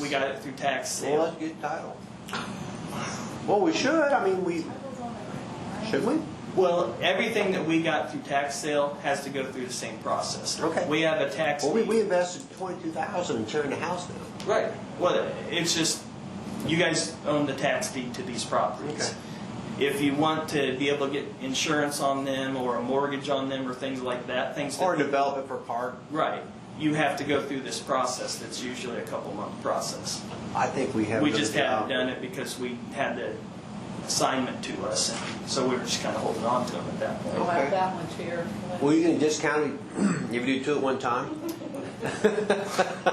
we got it through tax Well, sale. let's get title. Well, we should, I mean, we, should we? Well, everything that we got through tax sale has to go through the same process. Okay. We have a tax. Well, we, deed. we invested twenty-two thousand in tearing the house down. Right. Well, it's just, you guys own the tax deed to these properties. If you want to be able to get insurance on them or a mortgage on them or things like that, things that. Or develop it for park. Right. You have to go through this process that's usually a couple month process. I think we have. We done a just good haven't job. done it because we had the assignment to us, and so we were just kind of holding on to them at that point. Well, that one's here. Well, you can discount it if you do two at one time.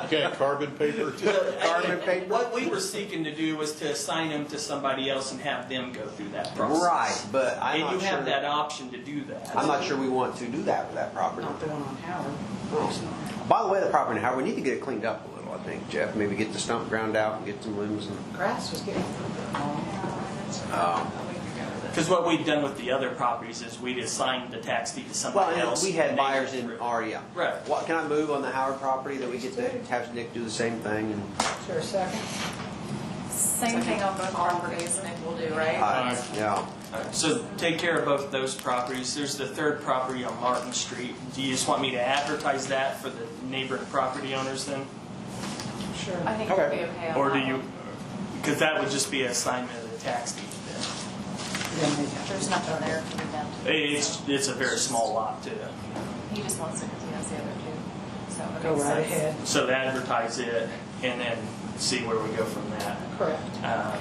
Okay, carbon paper. Carbon paper? What we were seeking to do was to assign them to somebody else and have them go through that process. Right, but I'm And you not sure. have that option to do that. I'm not sure we want to do that with that property. Not the one on Howard. It's not. By the way, the property, Howard, we need to get it cleaned up a little, I think, Jeff. Maybe get the stump ground out and get some limbs and, Grass was getting. um, Because what we've done with the other properties is we'd assigned the tax deed to well, somebody and else. we had and they buyers went in through. our, yeah. Right. What, can I move on the Howard property that we get to have Nick do the same thing and? Is there a second? Same thing on both properties, Nick will do, right? Aye. Yeah. Alright, So take care of both those properties. There's the third property on Martin Street. Do you just want me to advertise that for the neighboring property owners then? Sure. I think it'll be Okay. okay on Or do that you, one. because that would just be an assignment of the tax deed then. Then we have- There's nothing there for them to. It's, it's a very small lot too. He just wants it because he has the other two, so. it Go makes right sense. ahead. So advertise it and then see where we go from that. Correct. Um,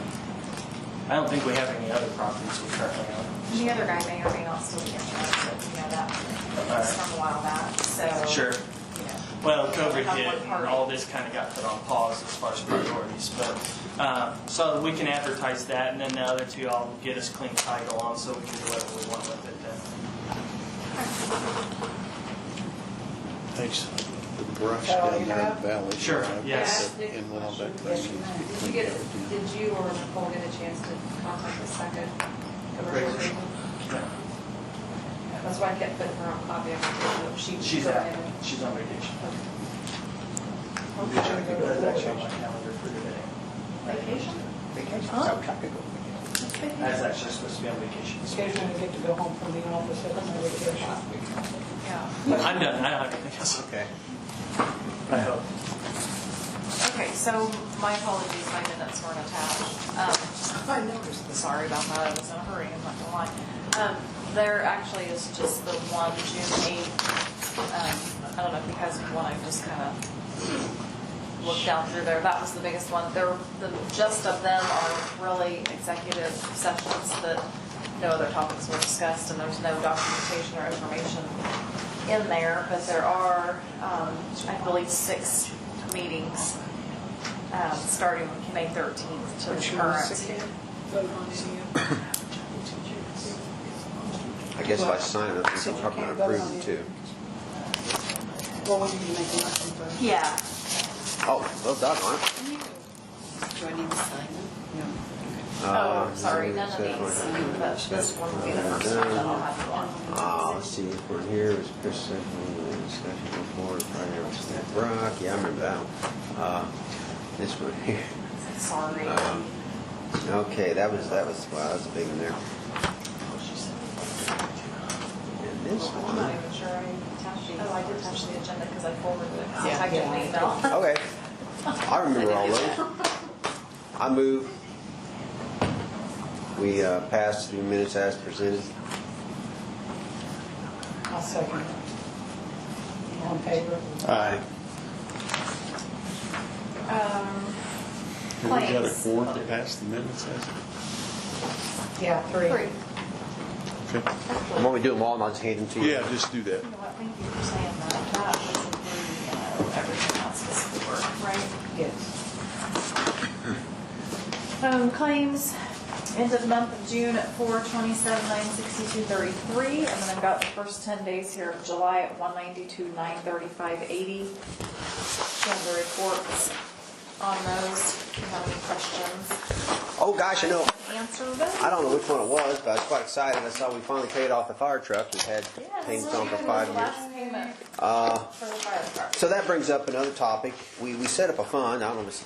I don't think we have any other properties we currently own. And The other guy may or may not still be interested, you know, that, it's from a while back, so. Sure. you know. Well, COVID Have hit, one and party. all this kind of got put on pause as far as priorities, but, um, so we can advertise that, and then the other two, I'll get us clean title on, so we can do whatever we want with it then. Thanks. The brush That all down you there in have? the valley. Sure, I've yes. got it In one of that Yes, thing. you have. needs to Did you be get, cleaned up, too. did you or Nicole get a chance to contact the second? Great. That's why I kept putting her on copy of it, so she. She's go out, ahead and- she's on vacation. That's actually on my Vacation? calendar for today. Vacation, Huh? South Africa. I was actually supposed to be on vacation. this week. Occasionally I get to go home from the office at my vacation. Yeah. I'm done, I don't have anything else, Okay. I hope. Okay, so my apologies, my minutes weren't attached. Um, I noticed. Sorry about that, I was in a hurry, I'm not gonna lie. Um, There actually is just the one June 8th, um, I don't know if you guys want, I just kind of looked down through there, that was the biggest one. There, the gist of them are really executive sessions that no other topics were discussed, and there's no documentation or information in there, but there are, um, I believe, six meetings, um, starting May 13th to Which the ones current. again? Vote on any of them. I guess if I sign it, I think I'm probably gonna approve it too. Well, when you make a motion first. Yeah. Oh, well done, Mark. Do I need to sign them? Oh, sorry, none of these, Uh, but this one will be the first one that I'll have you on. Uh, let's see, if we're here, it was Chris said, uh, discussion before, prior to Snap Rock, yeah, I remember that one. Uh, This one here, Sorry. um, okay, that was, that was, wow, that was a big one there. And this I'm not one, even sure I attached these. Oh, I did attach the agenda because I forwarded it. I get an email. okay. I remember all those. I move, we uh, pass the minutes as presented. I'll second. All in favor? Aye. Um, We got a Claims. quorum to pass the minutes, has Yeah, three. Three. it? Okay. Why do we do them all and I'll just hand them to you? Yeah, just do that. You know what, thank you for saying that. That was the, uh, everything else was for, right? Yes. Um, claims, end of the month of June at four twenty-seven, nine sixty-two, thirty-three, and then I've got the first ten days here of July at one ninety-two, nine thirty-five, eighty. Show the reports on those, if you have any questions, Oh, gosh, I know. answer them. I don't know which one it was, but I was quite excited. I saw we finally paid off the fire truck. We've had things on for five years. Last payment Uh, for the fire department. so that brings up another topic. We, we set up a fund. I don't know if it's still